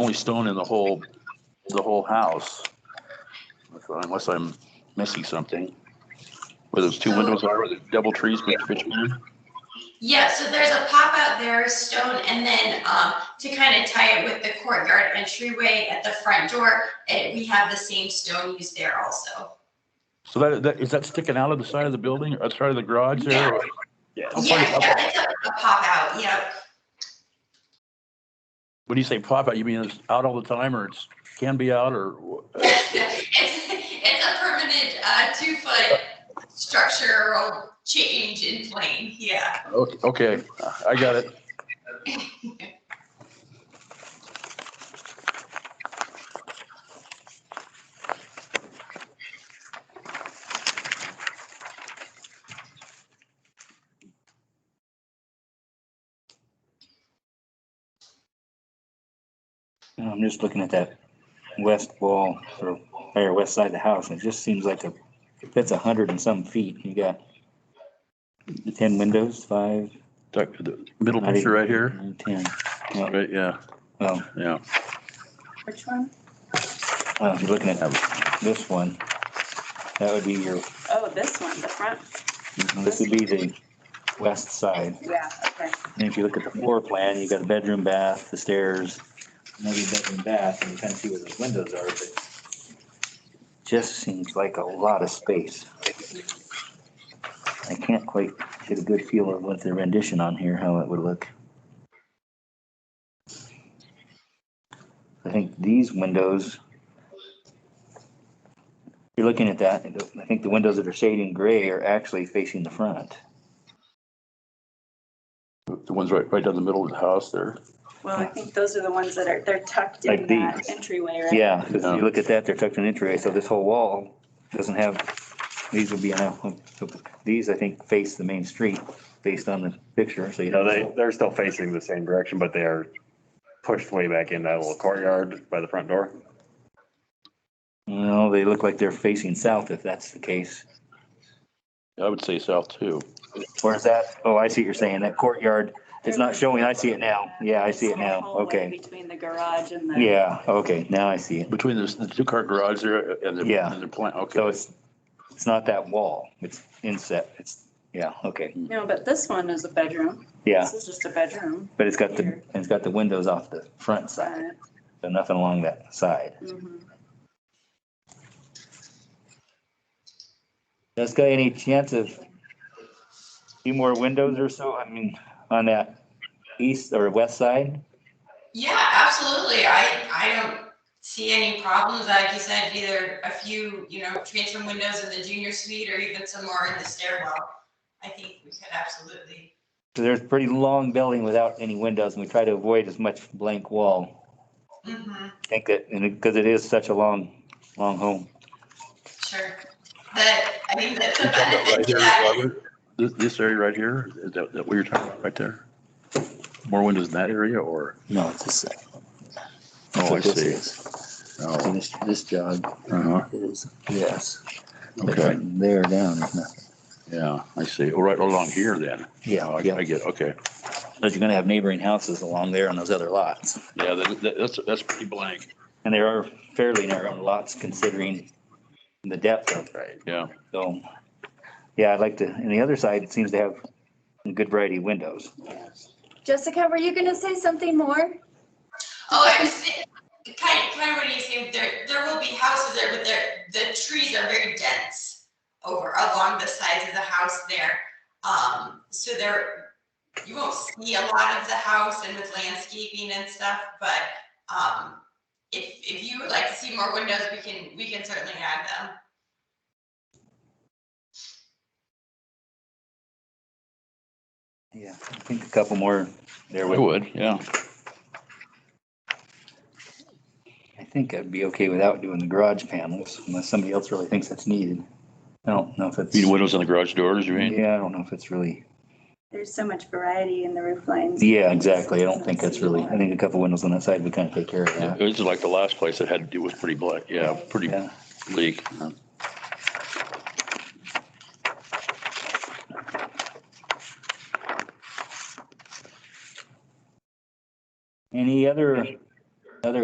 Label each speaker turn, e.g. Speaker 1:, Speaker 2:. Speaker 1: only stone in the whole, the whole house. Unless I'm missing something. Where those two windows are, with the double trees bet- between.
Speaker 2: Yeah, so there's a pop out there, stone, and then um, to kind of tie it with the courtyard entryway at the front door, eh, we have the same stone used there also.
Speaker 1: So that, that, is that sticking out of the side of the building, or side of the garage there? or- How far
Speaker 2: Yeah,
Speaker 1: is-
Speaker 2: yeah, it's a a pop out, yeah.
Speaker 1: When you say pop out, you mean it's out all the time, or it's, can be out, or? wh-
Speaker 2: It's it's a permanent uh, two-foot structural change in plane, yeah.
Speaker 1: Okay, okay, I got it.
Speaker 3: I'm just looking at that west wall or, or west side of the house, and it just seems like a, if that's a hundred and some feet, you got ten windows, five,
Speaker 1: Tuck- the Middle
Speaker 3: Not
Speaker 1: picture
Speaker 3: even-
Speaker 1: right here,
Speaker 3: nine, ten. Oh, Well,
Speaker 1: right, yeah,
Speaker 3: well,
Speaker 1: yeah.
Speaker 4: Which one?
Speaker 3: well, if you're oh, looking at this one, that would be your,
Speaker 4: Oh, this one, the front?
Speaker 3: this would be the west side.
Speaker 4: Yeah, okay.
Speaker 3: And if you look at the floor plan, you've got a bedroom, bath, the stairs, another bedroom, bath, and you kind of see where those windows are, but just seems like a lot of space. I can't quite get a good feel of what the rendition on here, how it would look. I think these windows, if you're looking at that, I think the windows that are shading gray are actually facing the front.
Speaker 1: The ones right, right down the middle of the house there.
Speaker 4: Well, I think those are the ones that are, they're tucked
Speaker 3: Like
Speaker 4: in that
Speaker 3: these.
Speaker 4: entryway, right?
Speaker 3: Yeah, 'cause if
Speaker 1: Yeah.
Speaker 3: you look at that, they're tucked in entryway, so this whole wall doesn't have, these would be, on a- these, I think, face the main street based on the picture, so you
Speaker 5: No,
Speaker 3: know,
Speaker 5: they, they're still facing the same direction, but they are pushed way back in that little courtyard by the front door.
Speaker 3: no, they look like they're facing south if that's the case.
Speaker 1: I would say south too.
Speaker 3: Where's that? Oh, I see what you're saying, that courtyard, it's not showing, I see it now, yeah, I see it
Speaker 4: Small
Speaker 3: now,
Speaker 4: hallway
Speaker 3: okay.
Speaker 4: Between the garage and the.
Speaker 3: Yeah, okay, now I see it,
Speaker 1: Between this- the two-car garage there and the,
Speaker 3: Yeah.
Speaker 1: and the plant,
Speaker 3: so
Speaker 1: okay.
Speaker 3: it's, it's not that wall, it's inset, it's, yeah, okay,
Speaker 4: No, but this one is a bedroom.
Speaker 3: yeah,
Speaker 4: This is just a bedroom.
Speaker 3: but it's got the, it's got the windows off the front side,
Speaker 4: but-
Speaker 3: so nothing along that side.
Speaker 4: mhm.
Speaker 3: Jessica, any chance of a few more windows or so, I mean, on that east or west side?
Speaker 2: Yeah, absolutely. I, I don't see any problems. Like you said, either a few, you know, transom windows in the junior suite or even some more in the stairwell. I think we could absolutely.
Speaker 3: So there's a pretty long building without any windows and we try to avoid as much blank wall.
Speaker 2: Mhm,
Speaker 3: I think that, and because it is such a long, long home.
Speaker 2: Sure. That, I think that's a
Speaker 1: Right
Speaker 2: benefit to
Speaker 1: here,
Speaker 2: that.
Speaker 1: Robert, This, this area right here, is that, that what you're talking about right there? More windows in that area or?
Speaker 3: No, it's this side.
Speaker 1: Oh, I see.
Speaker 3: So
Speaker 1: Oh,
Speaker 3: this, this jog
Speaker 1: uh-huh,
Speaker 3: is this. But
Speaker 1: Okay.
Speaker 3: from There down is nothing.
Speaker 1: yeah, I see. Oh, Right along here then. Oh,
Speaker 3: Yeah,
Speaker 1: I I
Speaker 3: yeah.
Speaker 1: get, okay.
Speaker 3: But you're gonna have neighboring houses along there on those other lots.
Speaker 1: Yeah, that, that- that's, that's pretty blank.
Speaker 3: And there are fairly narrow lots considering the depth of
Speaker 5: Right.
Speaker 1: Yeah,
Speaker 3: So, yeah, I'd like to, and the other side seems to have a good variety of windows.
Speaker 6: Jessica, were you gonna say something more?
Speaker 2: Oh, I was saying, kind of, kind of what you saying, there, there will be houses there, but there, the trees are very dense over, along the sides of the house there. Um, so there, you won't see a lot of the house and with landscaping and stuff, but, um, if, if you would like to see more windows, we can, we can certainly add them.
Speaker 3: Yeah. I think a couple more there
Speaker 1: I
Speaker 3: would,
Speaker 1: would, yeah.
Speaker 3: I think I'd be okay without doing the garage panels unless somebody else really thinks that's needed. I don't know if it's,
Speaker 1: You mean
Speaker 3: yeah,
Speaker 1: windows on the garage doors, you mean?
Speaker 3: I don't know if it's really,
Speaker 4: There's so much variety in the roof lines.
Speaker 3: yeah, exactly. I don't think that's really, I think a couple windows on that side would kind of take care of that.
Speaker 1: It was like the last place that had to do was pretty black, yeah, pretty
Speaker 3: Yeah.
Speaker 1: bleak.
Speaker 3: Any other